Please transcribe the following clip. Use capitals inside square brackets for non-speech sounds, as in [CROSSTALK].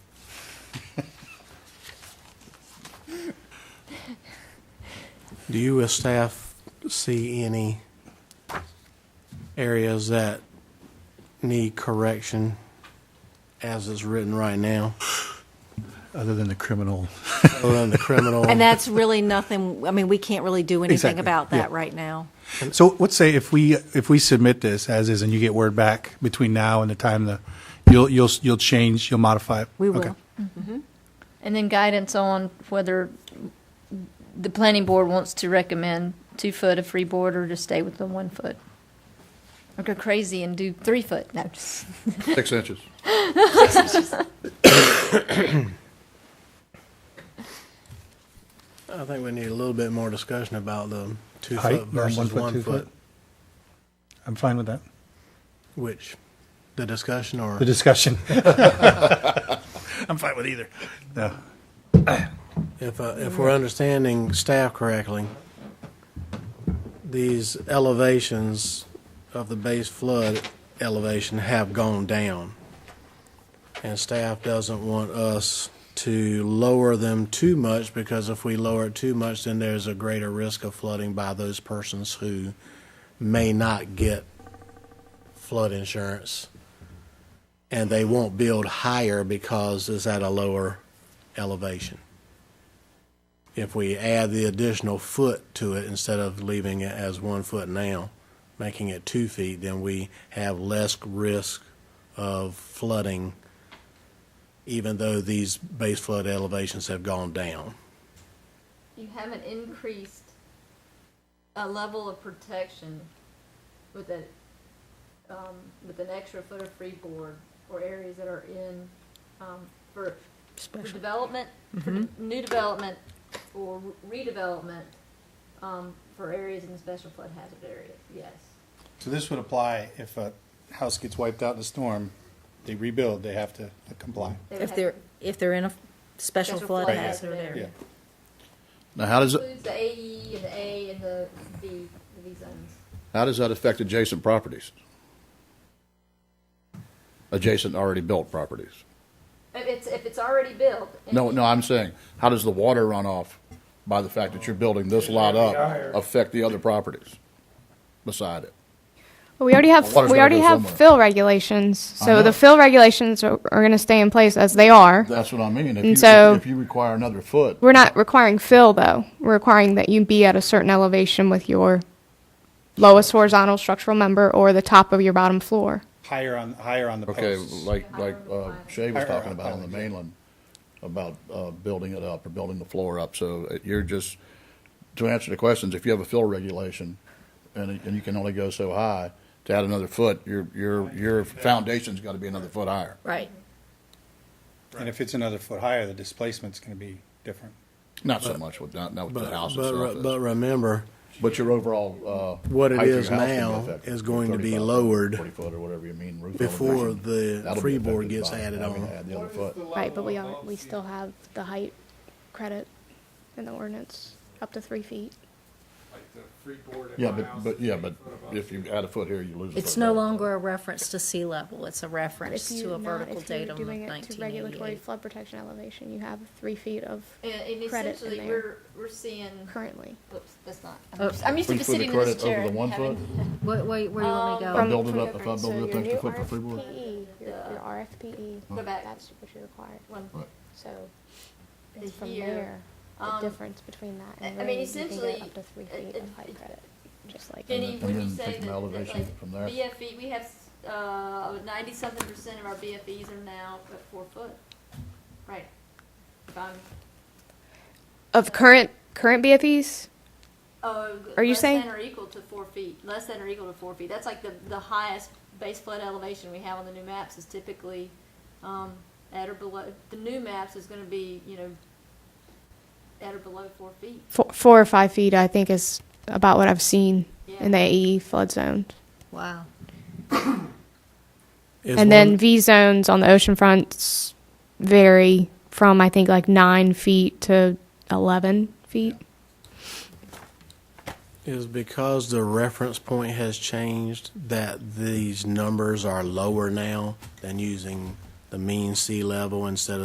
Do you as staff see any areas that need correction as it's written right now, other than the criminal. other than the criminal? And that's really nothing, I mean, we can't really do anything Exactly, about yeah. that right now. So let's say if we, if we submit this as is and you get word back between now and the time the, you'll, you'll, you'll change, you'll modify it? We will. Okay. And then guidance on whether the planning board wants to recommend two foot of freeboard or to stay with the one foot. Or go crazy and do three foot, no, just, Six inches. I think we need a little bit more discussion about the two Height, foot yeah, one versus foot, one two foot, foot. I'm fine with that. which, the discussion or? The [LAUGHS] discussion. I'm fine with either. No. If, uh, if we're understanding staff correctly, these elevations of the base flood elevation have gone down. And staff doesn't want us to lower them too much because if we lower it too much, then there's a greater risk of flooding by those persons who may not get flood insurance. And they won't build higher because it's at a lower elevation if we add the additional foot to it instead of leaving it as one foot now, making it two feet, then we have less risk of flooding, even though these base flood elevations have gone down. you haven't increased a level of protection with a, um, with an extra foot of freeboard or areas that are in, um, for, for development, Mm-hmm. for de- new development or redevelopment, um, for areas in special flood hazard areas, yes. So this would apply if a house gets wiped out in a storm, they rebuild, they have to comply. They would If have they're, if they're in a special flood hazard Yeah. area. Now, how does, Includes the AE and the A E and the V, the V zones. how does that affect adjacent properties? Adjacent already built properties? If it's, if it's already built. and No, no, I'm saying, how does the water runoff by the fact that you're building this lot up affect the other properties beside it? Well, we already have Water's we gotta already go have somewhere. fill regulations, so know. the fill regulations are, are going to stay in place as they are. That's what I mean. If And you, so- if you require another foot, We're not requiring fill though. We're requiring that you be at a certain elevation with your lowest horizontal structural member or the top of your bottom floor. Higher on, higher on the Okay, posts. like, like uh, Shay was Or- or talking about on the island, yeah. mainland, about uh, building it up or building the floor up. So uh, you're just, to answer the questions, if you have a fill regulation and, it- and you can only go so high, to add another foot, your, your, your foundation's got to be another foot higher. Right. And if it's another foot higher, the displacement's gonna be different. Not so much with, not, not with But, the house but, re- itself, but is. remember, but your overall. uh, What it height of your is house can be now affected, is going to be 35 foot, lowered Forty foot or whatever you mean, roof before elevation. the That'll be freeboard affected gets by added having on. to add the other foot. Right, but we are we still have the height credit in the ordinance up to three feet. like the freeboard. at Yeah, my but, house but, is yeah, eight but foot above. if you add a foot here, you lose a foot. It's no there. longer a reference to sea level, it's a reference If to you're a not, vertical if you're datum of doing it to regulatory 1988. flood protection elevation, you have three feet of And, and Credit essentially, in we're, there. we're seeing, currently oops, that's not, I'm Oh. just- I'm used We to just put the sitting in this credit over chair. the one and having- foot? Wait, wait, where do you want me to From- go? build it Um, from up- if I different- build it so up your extra new foot for free will? RFPE, Your, your RFPE, Go back. E, that's what you require. [LAUGHS] One. Right. So The it's from year, there, the um, difference between that and I- I mean, rain, you can essentially, get up to three it- feet it- of height it- credit, just like. Jenny, And would you then say take that, from that elevation like from there. BFE, we have, uh, ninety-something percent of our BFEs are now at four foot, right? If I'm- Of current, current BFEs, Oh, Are you less saying- than or equal to four feet? Less than or equal to four feet. That's like the, the highest base flood elevation we have on the new maps is typically um, at or below. The new maps is going to be you know at or below four feet. four, four or five feet, I think is about what I've seen Yeah. in the AE flood zone. Wow. Is And then one- V zones on the ocean fronts vary from, I think, like nine feet to 11 feet. Is because the reference point has changed that these numbers are lower now than using the mean sea level instead of.